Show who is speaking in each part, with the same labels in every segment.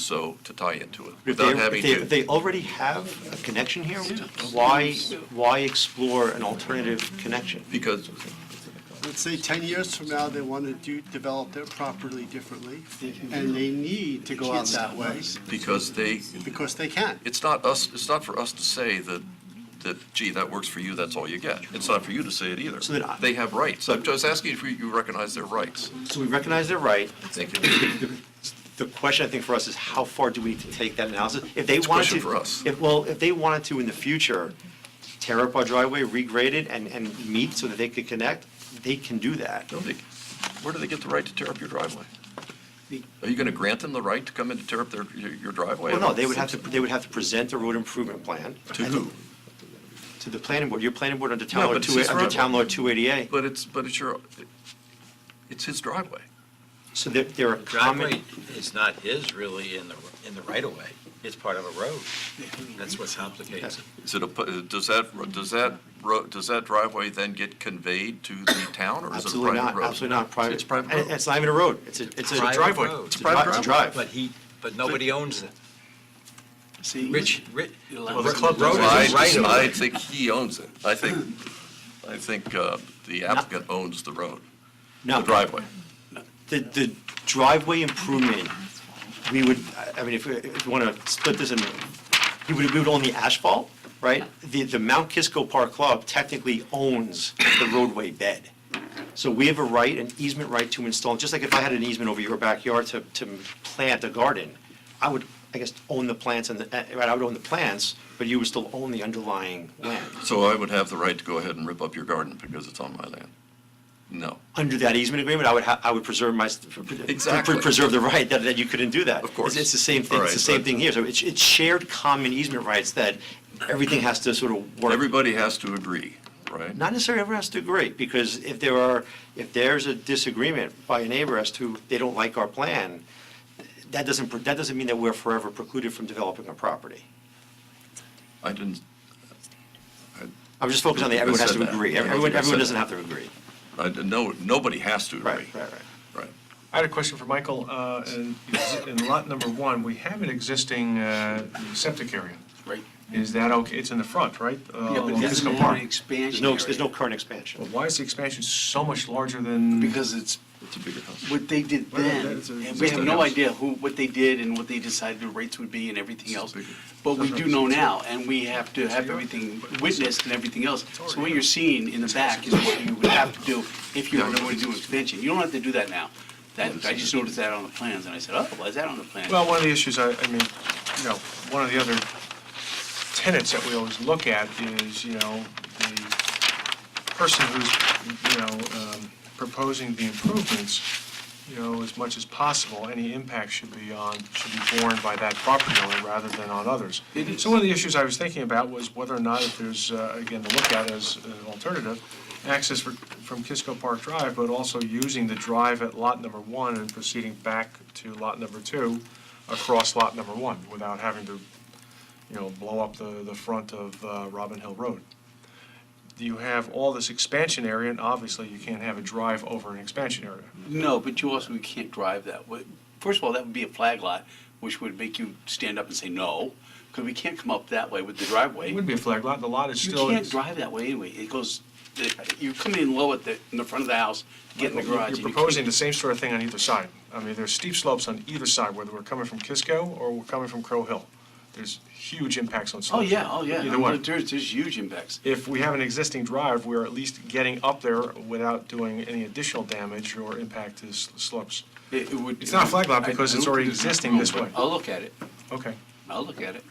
Speaker 1: so to tie into it
Speaker 2: If they,
Speaker 1: without
Speaker 2: if
Speaker 1: having
Speaker 2: they, if
Speaker 1: to.
Speaker 2: they already have a connection here, why, why explore an alternative connection?
Speaker 1: Because
Speaker 3: Let's say 10 years from now, they want to do, develop it properly differently, and they need to go out that way
Speaker 1: because they
Speaker 3: because they can.
Speaker 1: it's not us. It's not for us to say that that gee that works for you. That's all you get. It's not for you to say it either.
Speaker 2: So then I-
Speaker 1: they have rights. I'm just asking if you, you recognize their rights.
Speaker 2: So we recognize they're right.
Speaker 1: Thank you.
Speaker 2: The question, I think, for us is how far do we need to take that analysis? If they
Speaker 1: It's a
Speaker 2: wanted to.
Speaker 1: question for us.
Speaker 2: if- Well, if they wanted to in the future, tear up our driveway, regrade it, and, and meet so that they could connect, they can do that.
Speaker 1: No, they, where do they get the right to tear up your driveway? Are you going to grant them the right to come in to tear up their your your driveway?
Speaker 2: Well, no, they would have to, they would have to present a road improvement plan
Speaker 1: To who?
Speaker 2: to the planning board, your planning board under
Speaker 1: No,
Speaker 2: town law
Speaker 1: but it's
Speaker 2: two,
Speaker 1: his
Speaker 2: under
Speaker 1: driveway.
Speaker 2: town law two eighty-eight.
Speaker 1: But it's but it's your it's his driveway.
Speaker 2: So there, there are
Speaker 4: driveway
Speaker 2: common,
Speaker 4: is not his really in the, in the right of way. It's part of a road. That's what complicates it.
Speaker 1: Is it a, pu- does that, does that, ro- does that driveway then get conveyed to the town, or is it a
Speaker 2: absolutely
Speaker 1: private
Speaker 2: not,
Speaker 1: road?
Speaker 2: absolutely not, private.
Speaker 1: It's a private
Speaker 2: and
Speaker 1: road.
Speaker 2: It's not even a road, it's a, it's a.
Speaker 4: Private
Speaker 1: driveway.
Speaker 4: road.
Speaker 2: It's a drive, it's a
Speaker 4: But
Speaker 2: drive.
Speaker 4: he, but nobody owns it.
Speaker 3: See,
Speaker 4: Rich, Rich,
Speaker 3: Well,
Speaker 4: the
Speaker 3: the
Speaker 4: club
Speaker 3: club
Speaker 4: road is
Speaker 1: I,
Speaker 4: his right of
Speaker 1: I
Speaker 4: way.
Speaker 1: think he owns it. I think, I think uh, the applicant owns the road,
Speaker 2: No,
Speaker 1: the driveway.
Speaker 2: The, the driveway improvement, we would, I- I mean, if, we- if you want to split this in, we would, we would own the asphalt, right? The, the Mount Kisco Park Club technically owns the roadway bed. So we have a right, an easement right to install, just like if I had an easement over your backyard to, to plant a garden, I would, I guess, own the plants and, the eh, right, I would own the plants, but you would still own the underlying land,
Speaker 1: So I would have the right to go ahead and rip up your garden because it's on my land? No,
Speaker 2: under that easement agreement, I would ha, I would preserve my,
Speaker 1: Exactly.
Speaker 2: pre- preserve the right that, that you couldn't do that.
Speaker 1: Of course.
Speaker 2: It's, it's the same thing,
Speaker 1: All
Speaker 2: it's the
Speaker 1: right,
Speaker 2: same
Speaker 1: but-
Speaker 2: thing here, so it's, it's shared common easement rights that everything has to sort of work.
Speaker 1: everybody has to agree, right?
Speaker 2: Not necessarily everyone has to agree, because if there are, if there's a disagreement by a neighbor as to they don't like our plan, that doesn't, pre- that doesn't mean that we're forever precluded from developing a property.
Speaker 1: I didn't,
Speaker 2: I'm just focused on the,
Speaker 1: I
Speaker 2: everyone has
Speaker 1: said
Speaker 2: to
Speaker 1: that.
Speaker 2: agree,
Speaker 1: I don't
Speaker 2: everyone,
Speaker 1: think I
Speaker 2: everyone
Speaker 1: said
Speaker 2: doesn't
Speaker 1: that.
Speaker 2: have to agree.
Speaker 1: I, didn't- no, nobody has to agree.
Speaker 2: Right, right, right.
Speaker 1: Right.
Speaker 5: I had a question for Michael. Uh, In in lot number one, we have an existing uh, septic area.
Speaker 6: Right.
Speaker 5: Is that okay? It's in the front, right? Uh,
Speaker 6: Yeah, but
Speaker 5: along
Speaker 6: it
Speaker 5: Kisco
Speaker 6: doesn't have
Speaker 5: Park.
Speaker 6: an
Speaker 2: There's
Speaker 6: expansion
Speaker 2: no, there's no
Speaker 6: area.
Speaker 2: current expansion.
Speaker 5: Well, Why is the expansion so much larger than?
Speaker 6: Because it's,
Speaker 1: It's a bigger house.
Speaker 6: what they did
Speaker 5: Well,
Speaker 6: then,
Speaker 5: that's a-
Speaker 6: and we have no idea who, what they did and what they decided the rates would be and everything else. But we do know now, and we have to have everything witnessed and everything else. So what you're seeing in the back is what you would have to do if you were going to do an expansion. You don't have to do that now. That, I just noticed that on the plans, and I said, oh, why is that on the plan?
Speaker 5: Well, one of the issues, I, I mean, you know, one of the other tenets that we always look at is, you know, the person who's, you know, um, proposing the improvements, you know, as much as possible, any impact should be on, should be borne by that property owner rather than on others.
Speaker 6: It is.
Speaker 5: So one of the issues I was thinking about was whether or not if there's, uh, again, to look at as an alternative, access for- from Kisco Park Drive, but also using the drive at lot number one and proceeding back to lot number two across lot number one without having to, you know, blow up the, the front of uh, Robin Hill Road you have all this expansion area, and obviously you can't have a drive over an expansion area.
Speaker 6: No, but you also, you can't drive that way. First of all, that would be a flag lot, which would make you stand up and say no, because we can't come up that way with the driveway.
Speaker 5: It would be a flag lot, the lot is
Speaker 6: You
Speaker 5: still.
Speaker 6: can't drive that way anyway. It goes, you come in low at the, in the front of the house, get in the garage. and
Speaker 5: You're
Speaker 6: you can't-
Speaker 5: proposing the same sort of thing on either side. I mean, there's steep slopes on either side, whether we're coming from Kisco or we're coming from Crow Hill. There's huge impacts on
Speaker 6: Oh,
Speaker 5: slopes.
Speaker 6: yeah, oh, yeah.
Speaker 5: Either one.
Speaker 6: There's, there's huge impacts.
Speaker 5: If we have an existing drive, we're at least getting up there without doing any additional damage or impact to s- slopes.
Speaker 6: It it would.
Speaker 5: It's not a flag lot
Speaker 6: I-
Speaker 5: because
Speaker 6: I
Speaker 5: it's
Speaker 6: don't
Speaker 5: already
Speaker 6: think there's
Speaker 5: existing
Speaker 6: room,
Speaker 5: this
Speaker 6: but
Speaker 5: way.
Speaker 6: I'll look at it.
Speaker 5: Okay.
Speaker 6: I'll look at it.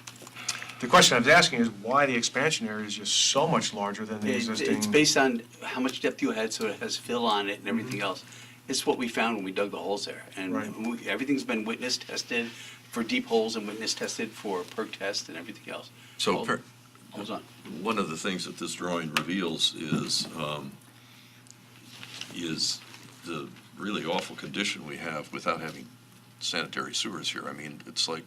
Speaker 5: The question I was asking is why the expansion area is just so much larger than the
Speaker 6: It-
Speaker 5: existing.
Speaker 6: It's based on how much depth you had, so it has fill on it and everything else. It's what we found when we dug the holes there.
Speaker 5: Mm-hmm. Right.
Speaker 6: And we- everything's been witness tested for deep holes and witness tested for perk test and everything else.
Speaker 1: So
Speaker 6: Oh,
Speaker 1: per-
Speaker 6: Hold on.
Speaker 1: One of the things that this drawing reveals is, um, is the really awful condition we have without having sanitary sewers here. I mean, it's like,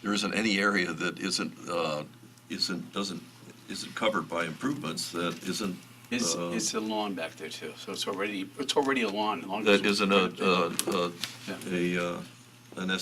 Speaker 1: there isn't any area that isn't, uh, isn't, doesn't, isn't covered by improvements that isn't,
Speaker 6: It's,
Speaker 1: uh,
Speaker 6: it's a lawn back there too, so it's already, it's already a lawn. as long as
Speaker 1: that
Speaker 6: it's-
Speaker 1: isn't a, a, a-
Speaker 6: Yeah.
Speaker 1: a, uh, an